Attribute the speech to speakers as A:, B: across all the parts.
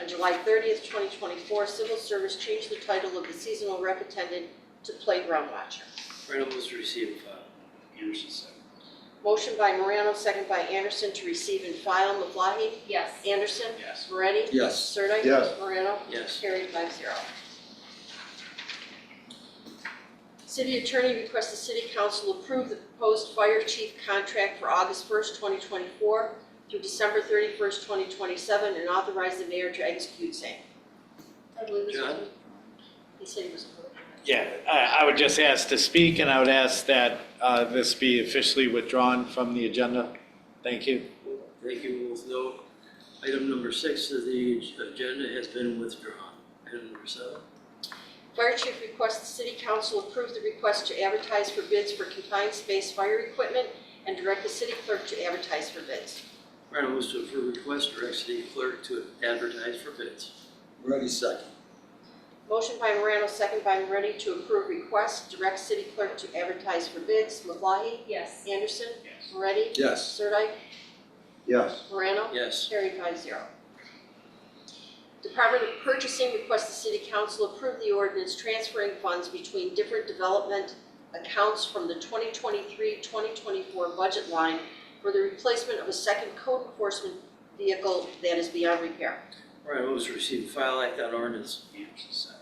A: On July 30th, 2024, Civil Service changed the title of the seasonal rep attendant to playground watcher.
B: Morano moves to receive and file. Anderson second.
A: Motion by Morano, second by Anderson, to receive and file. Maflahe?
C: yes,
A: Anderson?
B: Yes.
A: Moretti?
D: Yes.
A: Sirdike?
D: Yes.
A: Morano?
B: Yes.
A: Carried five zero. City Attorney requests the City Council approve the proposed fire chief contract for August 1st, 2024 through December 31st, 2027, and authorize the mayor to execute same.
C: I believe it's.
B: John?
A: He said he was approved.
E: Yeah, I, I would just ask to speak, and I would ask that uh, this be officially withdrawn from the agenda. Thank you.
B: Thank you both. No. Item number six of the agenda has been withdrawn. Item number seven.
A: Fire chief requests the City Council approve the request to advertise for bids for confined space fire equipment and direct the city clerk to advertise for bids.
B: Morano moves to approve request, direct city clerk to advertise for bids.
D: Moretti second.
A: Motion by Morano, second by Moretti to approve request, direct city clerk to advertise for bids. Maflahe?
C: Yes,
A: Anderson?
B: Yes.
A: Moretti?
D: Yes.
A: Sirdike?
D: Yes.
A: Morano?
B: Yes.
A: Carried five zero. Department of Purchasing requests the city council approve the ordinance transferring funds between different development accounts from the 2023-2024 budget line for the replacement of a second code enforcement vehicle that is beyond repair.
B: Morano moves to receive and file act on ordinance. Anderson second.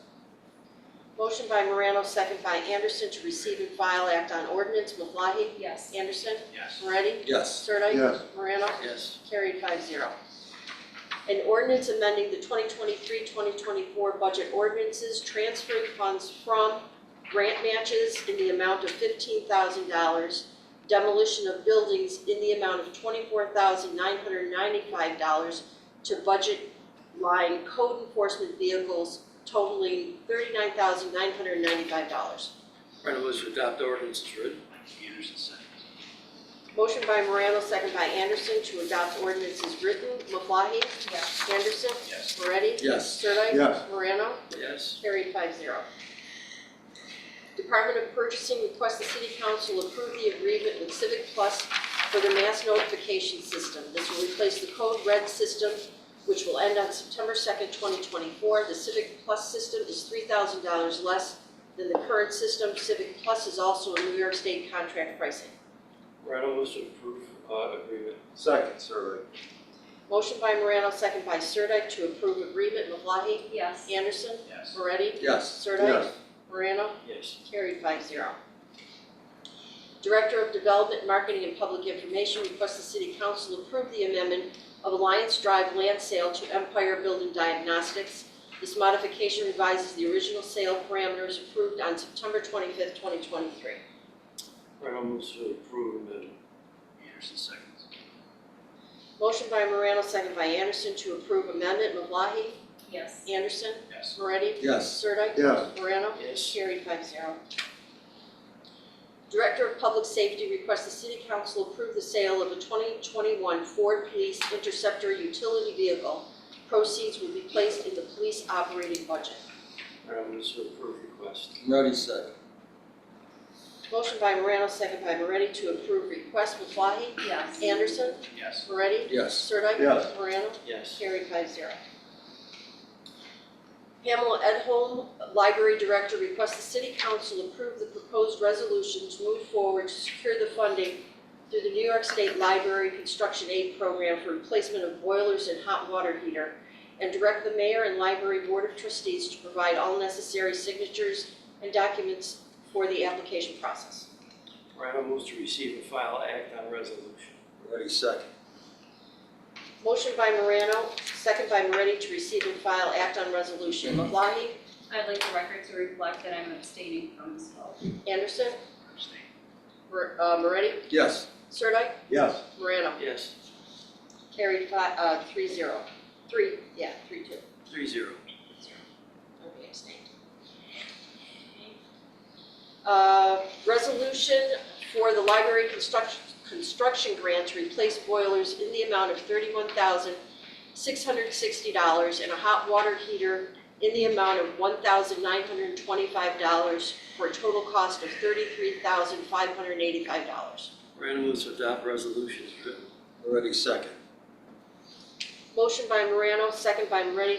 A: Motion by Morano, second by Anderson to receive and file act on ordinance. Maflahe?
C: yes,
A: Anderson?
B: Yes.
A: Moretti?
D: Yes.
A: Sirdike?
D: Yes.
A: Morano?
B: Yes.
A: Carried five zero. An ordinance amending the 2023-2024 budget ordinances, transferring funds from grant matches in the amount of $15,000, demolition of buildings in the amount of $24,995 to budget line code enforcement vehicles totaling $39,995.
B: Morano moves to adopt ordinance as written. Anderson second.
A: Motion by Morano, second by Anderson, to adopt ordinance as written. Maflahe?
C: yes,
A: Anderson?
B: Yes.
A: Moretti?
D: Yes.
A: Sirdike?
D: Yes.
A: Morano?
B: Yes.
A: Carried five zero. Department of Purchasing requests the City Council approve the agreement with Civic Plus for the mass notification system. This will replace the Code Red system, which will end on September second, twenty twenty-four. The Civic Plus system is three thousand dollars less than the current system. Civic Plus is also a New York State contract pricing.
B: Morano moves to approve uh, agreement.
D: Second, survey.
A: Motion by Morano, second by Sirdike, to approve agreement. Maflahe?
C: yes,
A: Anderson?
B: Yes.
A: Moretti?
D: Yes.
A: Sirdike? Morano?
B: Yes.
A: Carried five zero. Director of Development, Marketing, and Public Information requests the City Council approve the amendment of Alliance Drive land sale to Empire Building Diagnostics. This modification revises the original sale parameters approved on September twenty-fifth, twenty twenty-three.
B: Morano moves to approve amendment. Anderson seconds.
A: Motion by Morano, second by Anderson to approve amendment. Maflahe?
C: yes,
A: Anderson?
B: Yes.
A: Moretti?
D: Yes.
A: Sirdike?
D: Yes.
A: Morano?
B: Yes.
A: Carried five zero. Director of Public Safety requests the City Council approve the sale of a 2021 Ford Police Interceptor utility vehicle. Proceeds will be placed in the police operating budget.
B: Morano moves to approve request.
D: Moretti second.
A: Motion by Morano, second by Moretti to approve request. Maflahe?
C: yes,
A: Anderson?
B: Yes.
A: Moretti?
D: Yes.
A: Sirdike?
D: Yes.
A: Morano?
B: Yes.
A: Carried five zero. Pamela Edholm, Library Director, requests the City Council approve the proposed resolution to move forward to secure the funding through the New York State Library Construction Aid Program for replacement of boilers and hot water heater, and direct the mayor and library board of trustees to provide all necessary signatures and documents for the application process.
B: Morano moves to receive and file act on resolution.
D: Moretti second.
A: Motion by Morano, second by Moretti to receive and file act on resolution. Maflahe?
C: I'd like the record to reflect that I'm abstaining from this vote,
A: Anderson? Mer- uh, Moretti?
D: Yes.
A: Sirdike?
D: Yes.
A: Morano?
B: Yes.
A: Carried five, uh, three zero. Three, yeah, three two.
B: Three zero.
A: Okay, abstained. Uh, resolution for the library construction, construction grant to replace boilers in the amount of thirty-one thousand six hundred sixty dollars and a hot water heater in the amount of one thousand nine hundred and twenty-five dollars for a total cost of thirty-three thousand five hundred and eighty-five dollars.
B: Morano moves to adopt resolution as written.
D: Moretti second.
A: Motion by Morano, second by Moretti